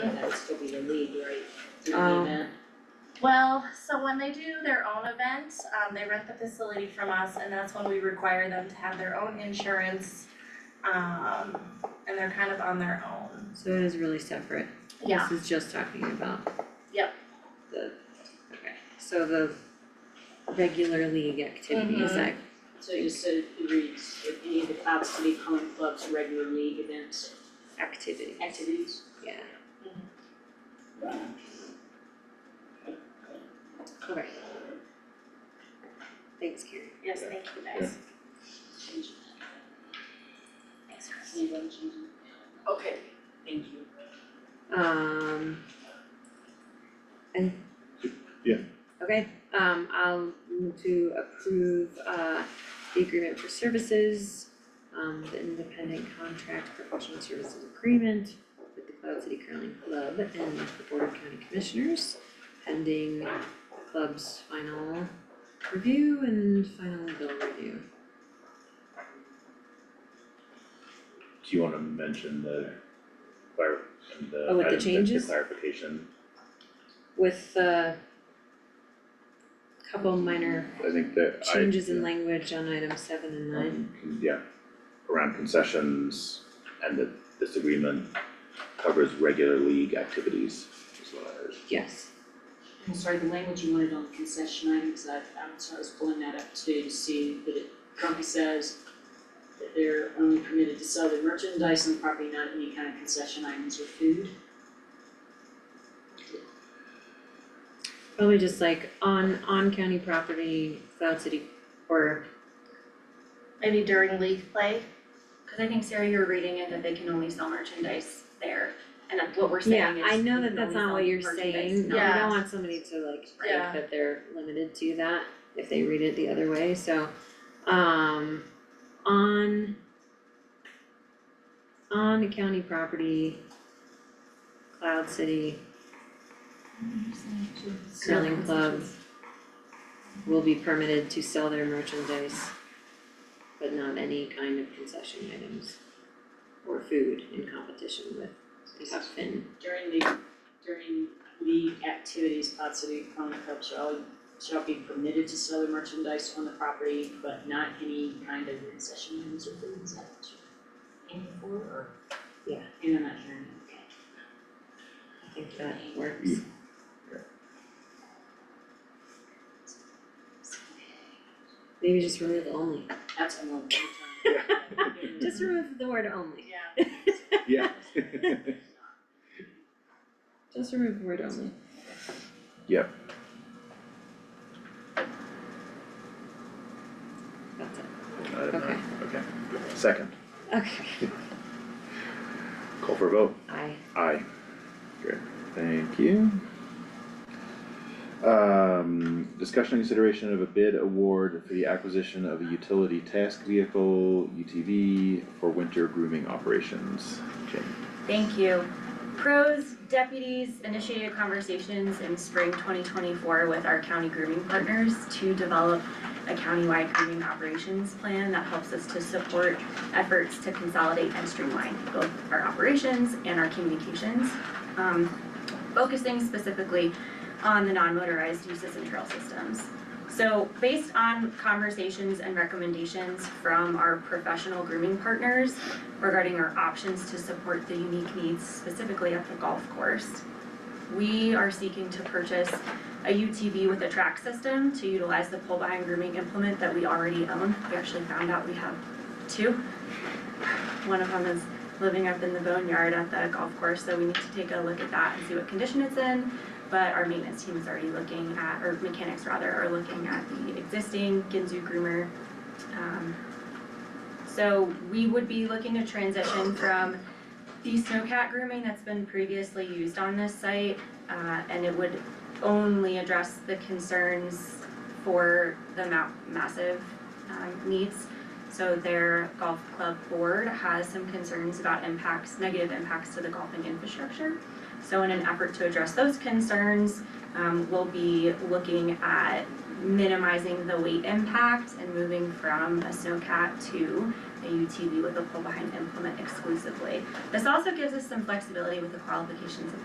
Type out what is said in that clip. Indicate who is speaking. Speaker 1: That's gonna be the lead, right, through the
Speaker 2: Um,
Speaker 1: event?
Speaker 3: Well, so when they do their own event, um, they rent the facility from us and that's when we require them to have their own insurance. Um, and they're kind of on their own.
Speaker 2: So it is really separate.
Speaker 3: Yeah.
Speaker 2: This is just talking about.
Speaker 3: Yep.
Speaker 2: The, okay, so the regular league activities,
Speaker 3: Mhm.
Speaker 2: I,
Speaker 1: So you said it reads, if any of the Cloud City Common Club's regular league events,
Speaker 2: activity,
Speaker 1: activities,
Speaker 2: yeah. Alright. Thanks, Karen.
Speaker 3: Yes, thank you guys.
Speaker 1: change that.
Speaker 3: Thanks, Chris.
Speaker 1: Anybody change it? Okay, thank you.
Speaker 2: Um. And.
Speaker 4: Yeah.
Speaker 2: Okay, um, I'll move to approve, uh, the agreement for services, um, the independent contract professional services agreement with the Cloud City Curling Club and the Board of County Commissioners, pending the club's final review and final bill review.
Speaker 4: Do you wanna mention the clar- and the
Speaker 2: Oh, with the
Speaker 4: item that-
Speaker 2: changes?
Speaker 4: clarification?
Speaker 2: With, uh, couple minor
Speaker 4: I think that I.
Speaker 2: changes in language on item seven and nine.
Speaker 4: Um, con- Yeah, around concessions and that this agreement covers regular league activities is what I heard.
Speaker 2: Yes,
Speaker 1: I'm sorry, the language you wanted on concession items, I, I'm sorry, I was pulling that up too, to see that it currently says that they're only permitted to sell their merchandise on the property, not any kind of concession items or food.
Speaker 2: probably just like on, on county property, Cloud City, or,
Speaker 3: Maybe during league play,
Speaker 5: Cause I think Sarah, you were reading it that they can only sell merchandise there, and that's what we're
Speaker 2: yeah,
Speaker 5: saying is
Speaker 2: I know
Speaker 5: you
Speaker 2: that
Speaker 5: can
Speaker 2: that's
Speaker 5: only
Speaker 2: not
Speaker 5: sell
Speaker 2: what you're
Speaker 5: merchandise
Speaker 2: saying, no,
Speaker 5: now.
Speaker 2: we
Speaker 3: Yeah.
Speaker 2: don't want somebody to like think
Speaker 3: Yeah.
Speaker 2: that they're limited to that if they read it the other way, so, um, on on county property, Cloud City curling club will be permitted to sell their merchandise, but not any kind of concession items or food in competition with Huck Finn.
Speaker 1: During the, during the activities, Pot City Common Club shall, shall be permitted to sell their merchandise on the property, but not any kind of concession items or food, is that what you're aiming for, or?
Speaker 2: Yeah.
Speaker 1: And I'm not hearing, okay.
Speaker 2: I think that works.
Speaker 4: Yeah.
Speaker 2: Maybe just remove only.
Speaker 1: That's a little bit of time.
Speaker 2: Just remove the word only.
Speaker 3: yeah.
Speaker 4: Yeah.
Speaker 2: Just remove the word only.
Speaker 4: Yep.
Speaker 2: That's it.
Speaker 4: Item nine, okay. Second,
Speaker 2: Okay.
Speaker 4: call for a vote.
Speaker 2: I
Speaker 4: Aye. Great, thank you. Um, discussion and consideration of a bid award for the acquisition of a utility task vehicle, UTV, for winter grooming operations. Jane.
Speaker 5: Thank you. Pros deputies initiated conversations in spring twenty twenty-four with our county grooming partners to develop a countywide grooming operations plan that helps us to support efforts to consolidate and streamline both our operations and our communications. um, focusing specifically on the non-motorized uses and trail systems. So based on conversations and recommendations from our professional grooming partners, regarding our options to support the unique needs specifically at the golf course. We are seeking to purchase a UTV with a track system to utilize the pull behind grooming implement that we already own. We actually found out we have two. One of them is living up in the boneyard at the golf course, so we need to take a look at that and see what condition it's in. But our maintenance team is already looking at, or mechanics rather, are looking at the existing Ginzu groomer. Um, so we would be looking to transition from the snowcat grooming that's been previously used on this site, uh, and it would only address the concerns for the ma- massive, um, needs. So their golf club board has some concerns about impacts, negative impacts to the golfing infrastructure. So in an effort to address those concerns, um, we'll be looking at minimizing the weight impact and moving from a snowcat to a UTV with a pull behind implement exclusively. This also gives us some flexibility with the qualifications of